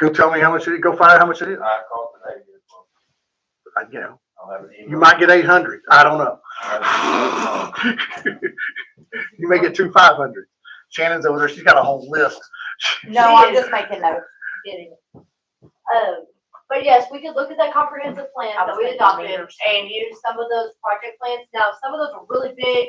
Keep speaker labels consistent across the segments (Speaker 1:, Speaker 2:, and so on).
Speaker 1: Go tell me how much it is, go find out how much it is.
Speaker 2: I called today.
Speaker 1: I, you know,
Speaker 2: I'll have an email.
Speaker 1: you might get eight hundred. I don't know.
Speaker 2: I'll have an email.
Speaker 1: You may get two five hundred. Shannon's over there. She's got a whole list.
Speaker 3: No, I'm just making notes.
Speaker 4: getting. Um, but yes, we could look at that comprehensive plan
Speaker 3: I
Speaker 4: that
Speaker 3: was
Speaker 4: we
Speaker 3: thinking
Speaker 4: adopted
Speaker 3: meters.
Speaker 4: and use some of those project plans. Now, some of those are really big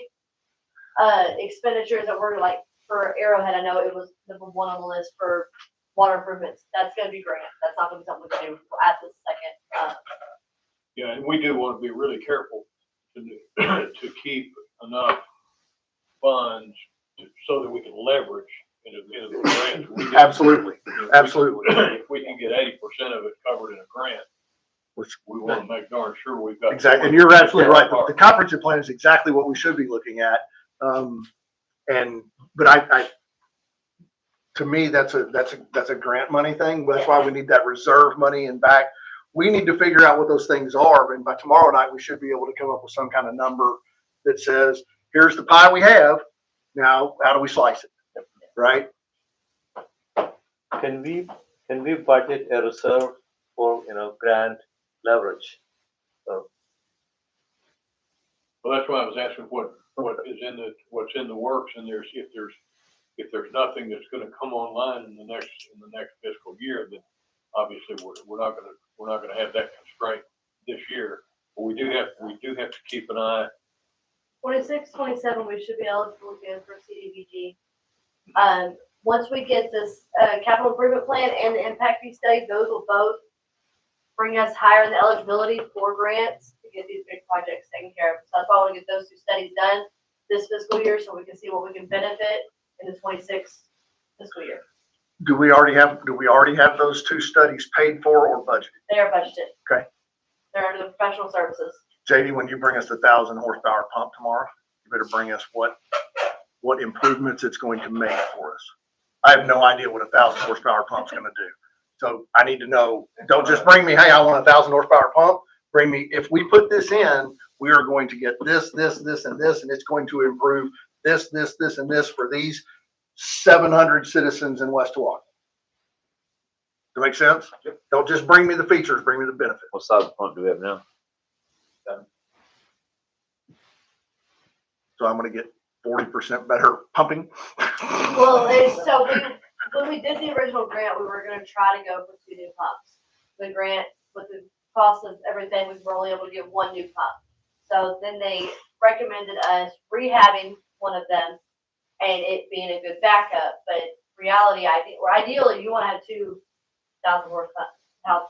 Speaker 4: uh, expenditures that were like for Arrowhead, I know it was number one on the list for water improvements. That's gonna be grant. That's not gonna be something we can do at this second. Uh,
Speaker 5: Yeah, and we do want to be really careful to, do- to keep enough funds to- so that we can leverage into, into the grants. We do-
Speaker 1: Absolutely,
Speaker 5: if we can-
Speaker 1: absolutely.
Speaker 5: If we can get eighty percent of it covered in a grant,
Speaker 1: Which-
Speaker 5: we want to make darn sure we've got.
Speaker 1: Exactly, and you're absolutely right. The- The comprehensive plan is exactly what we should be looking at. Um, and, but I, I, to me, that's a, that's a, that's a grant money thing. That's why we need that reserve money and back. We need to figure out what those things are, and by tomorrow night, we should be able to come up with some kind of number that says, here's the pie we have. Now, how do we slice it? Right?
Speaker 6: Can we, can we budget a reserve for, you know, grant leverage?
Speaker 5: Well, that's why I was asking what, what is in the, what's in the works and there's, if there's, if there's nothing that's gonna come online in the next, in the next fiscal year, then obviously we're, we're not gonna, we're not gonna have that constraint this year. But we do have, we do have to keep an eye.
Speaker 4: Twenty-six, twenty-seven, we should be eligible again for CDBG. Um, once we get this, uh, capital improvement plan and the impact fee study, those will both bring us higher in the eligibility for grants to get these big projects taken care of. So that's why I want to get those two studies done this fiscal year, so we can see what we can benefit in the twenty-six fiscal year.
Speaker 1: Do we already have, do we already have those two studies paid for or budgeted?
Speaker 4: They are budgeted.
Speaker 1: Okay.
Speaker 4: They're under the professional services.
Speaker 1: JD, when you bring us the thousand horsepower pump tomorrow, you better bring us what, what improvements it's going to make for us. I have no idea what a thousand horsepower pump's gonna do. So I need to know, don't just bring me, hey, I want a thousand horsepower pump. Bring me, if we put this in, we are going to get this, this, this, and this, and it's going to improve this, this, this, and this for these seven hundred citizens in West Wash. Does that make sense? Don't just bring me the features, bring me the benefits.
Speaker 6: What size fund do we have now?
Speaker 1: So I'm gonna get forty percent better pumping.
Speaker 4: Well, it's, so we, when we did the original grant, we were gonna try to go for two new pumps. The grant, with the cost of everything, we were only able to get one new pump. So then they recommended us rehabbing one of them and it being a good backup, but reality, I think, or ideally, you wanna have two thousand horsepower,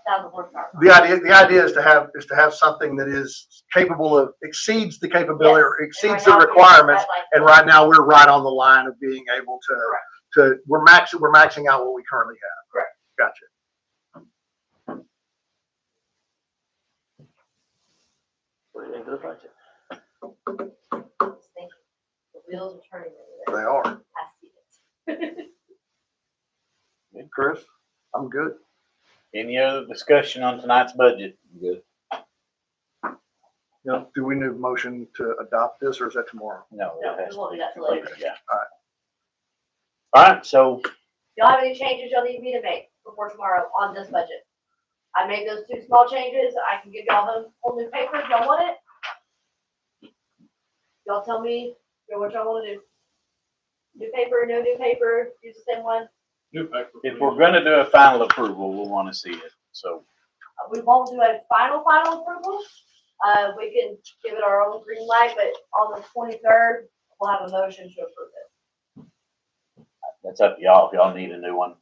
Speaker 4: thousand horsepower.
Speaker 1: The idea, the idea is to have, is to have something that is capable of, exceeds the capability or
Speaker 4: Yes, and right
Speaker 1: exceeds the
Speaker 4: now, we
Speaker 1: requirements.
Speaker 4: have, like,
Speaker 1: And right now, we're right on the line of being able to, to, we're maxing, we're maxing out what we currently have.
Speaker 4: Correct.
Speaker 1: Gotcha.
Speaker 6: Put it into the budget.
Speaker 4: The wheels are turning
Speaker 1: They
Speaker 4: over there.
Speaker 1: are.
Speaker 4: I see it.
Speaker 1: Chris? I'm good.
Speaker 7: Any other discussion on tonight's budget?
Speaker 6: Good.
Speaker 1: Now, do we need a motion to adopt this or is that tomorrow?
Speaker 7: No. it
Speaker 4: No, we
Speaker 7: has to
Speaker 4: won't
Speaker 7: be
Speaker 4: do that till later.
Speaker 7: completed, Yeah. All right, so
Speaker 4: y'all have any changes y'all need me to make before tomorrow on this budget? I made those two small changes, I can give y'all the whole new paper if y'all want it. Y'all tell me, you know, what y'all wanna do. New paper, no new paper, use the same one,
Speaker 5: New paper.
Speaker 7: if we're gonna do a final approval, we'll wanna see it, so.
Speaker 4: Uh, we won't do a final, final approval. Uh, we can give it our own green light, but on the twenty-third, we'll have a motion to approve it.
Speaker 7: That's up to y'all, if y'all need a new one.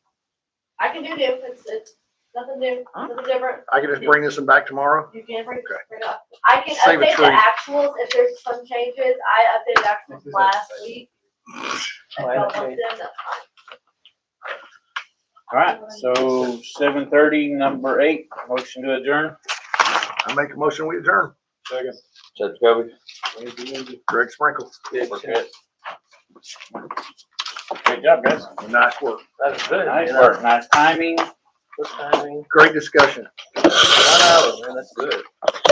Speaker 4: I can do new, it's, it's nothing new, nothing different.
Speaker 1: I can just bring this one back tomorrow?
Speaker 4: You can bring,
Speaker 1: Okay.
Speaker 4: bring it up. I can
Speaker 1: Save a
Speaker 4: update the
Speaker 1: tree.
Speaker 4: actuals if there's some changes. I updated actuals last week. If
Speaker 6: Oh, I
Speaker 4: y'all want
Speaker 6: update.
Speaker 4: them, that's fine.
Speaker 7: All right, so seven thirty, number eight, motion to adjourn.
Speaker 1: I make a motion, we adjourn.
Speaker 5: Second.
Speaker 6: Judge Gobi?
Speaker 1: Greg Sprinkle,
Speaker 6: We're good.
Speaker 7: Great job, guys.
Speaker 1: nice work.
Speaker 6: That's good.
Speaker 7: Nice work, nice timing.
Speaker 6: Good timing.
Speaker 1: Great discussion.
Speaker 6: One hour, man, that's good.